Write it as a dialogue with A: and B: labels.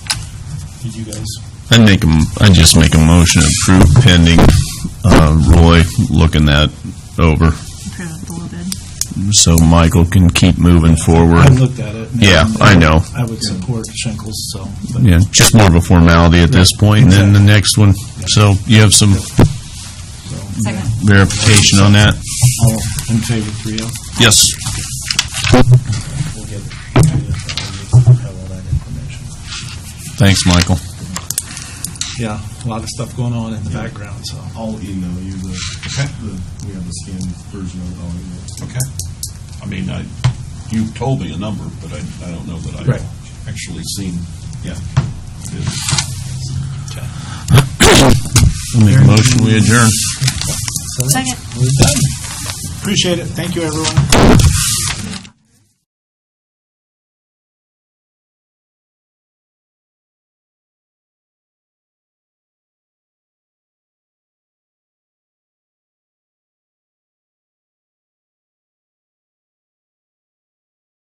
A: did you guys?
B: I'd make, I just make a motion to approve pending uh, Roy looking that over,
C: Approve of the low bid.
B: so Michael can keep moving
A: I
B: forward.
A: looked at it. uh,
B: Yeah, I know.
A: I would support Schenkels, so. but-
B: Yeah, just more of a formality at this point, and then the next one. So you have some
C: Second.
B: verification on that?
A: All in favor, three oh?
B: Yes.
A: We'll get, we'll have all that information.
B: Thanks, Michael.
A: Yeah, a lot of stuff going on in the background, so.
D: I'll email you the, the, we have the scanned version of it, I'll email it.
E: Okay. I mean, I, you told me a number, but I, I don't know that
A: Right.
E: I've actually seen.
D: Yeah.
B: Make a motion, we adjourn.
C: Second.
A: We're done. Appreciate it. Thank you, everyone.